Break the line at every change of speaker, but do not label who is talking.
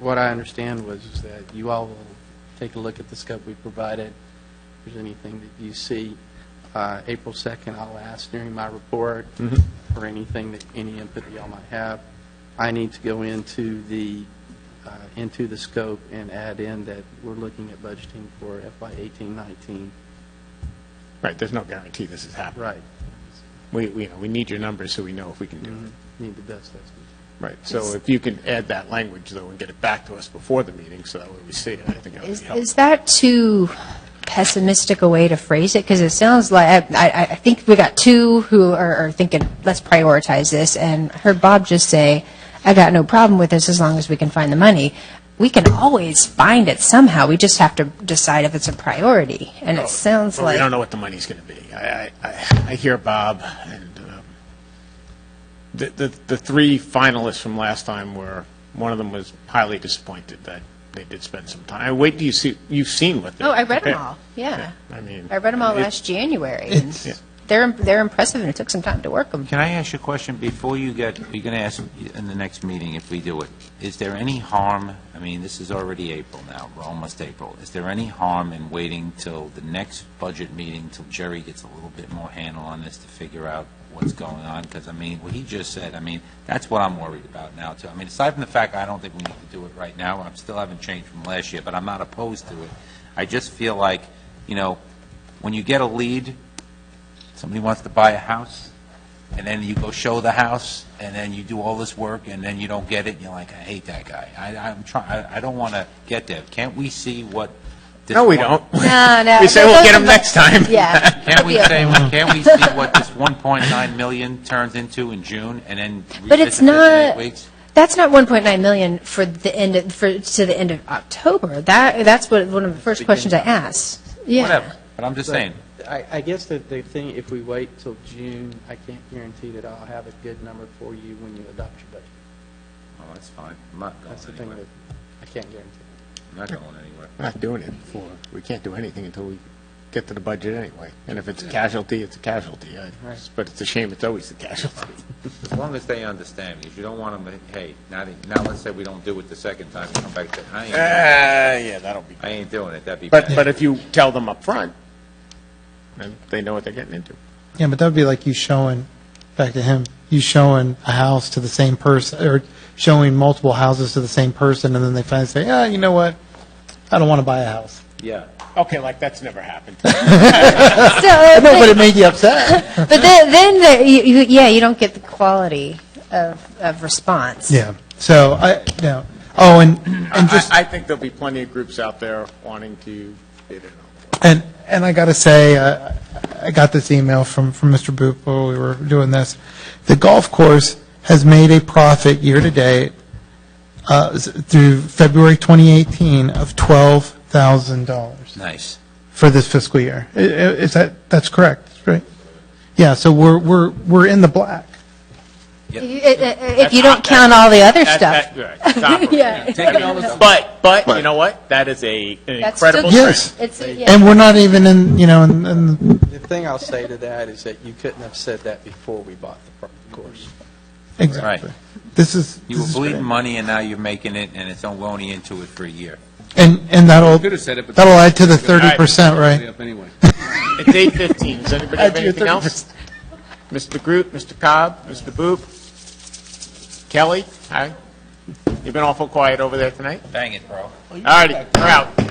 what I understand was is that you all will take a look at the scope we provided. If there's anything that you see, uh, April 2nd, I'll ask during my report for anything that, any input that y'all might have. I need to go into the, uh, into the scope and add in that we're looking at budgeting for FY 18, 19.
Right, there's no guarantee this is happening.
Right.
We, we, you know, we need your numbers so we know if we can do
Mm-hmm.
it.
Need the best estimate.
Right, so if you can add that language, though, and get it back to us before the meeting, so that way we see it, I think that would
Is,
be
is
helpful.
that too pessimistic a way to phrase it? Because it sounds like, I, I- I think we got two who are, are thinking, let's prioritize this, and I heard Bob just say, I got no problem with this as long as we can find the money. We can always find it somehow, we just have to decide if it's a priority, and it sounds
But Oh, we don't
like,
know what the money's going to be. I, I, I I hear Bob, and um, the, the, the three finalists from last time were, one of them was highly disappointed that they did spend some time. I Wait till you see, you've seen what they.
oh, I read them
prepared.
all, yeah.
I mean.
I read them all
it-
last January, and
Yeah.
they're, they're impressive, and it took some time to work them.
Can I ask you a question before you get, you're going to ask in the next meeting if we do it? Is there any harm, I mean, this is already April now, we're almost April. Is there any harm in waiting till the next budget meeting, till Jerry gets a little bit more handle on this to figure out what's going on? Because, I mean, what he just said, I mean, that's what I'm worried about now, too. I mean, aside from the fact I don't think we need to do it right now, I am still haven't changed from last year, but I'm not opposed to it. I just feel like, you know, when you get a lead, somebody wants to buy a house, and then you go show the house, and then you do all this work, and then you don't get it, and you're like, I hate that guy. I, I'm trying, I don't want to get there. Can't we see what? this
No, we
one-
don't.
No, no.
We say
no,
we'll
those
get
are
them
the-
next time.
Yeah.
Can't we
It'll be
say, can't we see what this 1.9 million turns into in June, and then
But it's
revisit this in eight
not-
weeks?
That's not 1.9 million for the end, of- for, to the end of October. That, that's what, one of the first questions I asked. Yeah.
Whatever, but I'm just saying,
But I, I guess that the thing, if we wait till June, I can't guarantee that I'll have a good number for you when you adopt your budget.
oh, that's fine, I'm not
That's the
going
thing
anywhere,
that I can't guarantee.
I'm not going anywhere.
We're not doing it before, we can't do anything until we get to the budget anyway. And if it's a casualty, it's a casualty. I-
Right.
But it's a shame it's always the casualty.
As long as they understand, because you don't want them to, hey, now, they- now let's say we don't do it the second time, you come back to, I ain't, I
Ah, yeah, that'll be.
ain't doing it, that'd be
But,
bad.
but if you tell them up front, then they know what they're getting into.
Yeah, but that would be like you showing, back to him, you showing a house to the same person, or showing multiple houses to the same person, and then they finally say, yeah, you know what? I don't want to buy a house.
Yeah.
Okay, like, that's never happened.
So, uh,
No, but
but
it made you upset.
but then, then the, you, you, yeah, you don't get the quality of, of response.
Yeah, so I, no, oh, and, and
I,
just,
I think there'll be plenty of groups out there wanting to bid it on.
and, and I got to say, uh, I got this email from, from Mr. Boop while we were doing this. The golf course has made a profit year-to-date uh, s- through February 2018 of $12,000.
Nice.
for this fiscal year. I- i- Is that, that's correct, right? Yeah, so we're, we're, we're in the black.
If you- i- i- If you don't count all the other stuff. Yeah.
But, but, you know what? That is a an
That's still
incredible
good.
trend.
Yes.
It's, yeah.
And we're not even in, you know, in, in,
The thing I'll say to that is that you couldn't have said that before we bought the pro- course.
exactly. This is,
You were
this is
bleeding
great.
money, and now you're making it, and it's only into it for a year.
And, and that'll,
Could have said it, but-
that'll add to the 30%,
Yeah,
right?
up anyway.
It's eight fifteen. Does anybody have
Add to your
anything else? Mr. Groot, Mr. Cobb, Mr. Boop, Kelly, hi. You've been awful quiet over there tonight.
Dang it, bro.
All righty, we're out.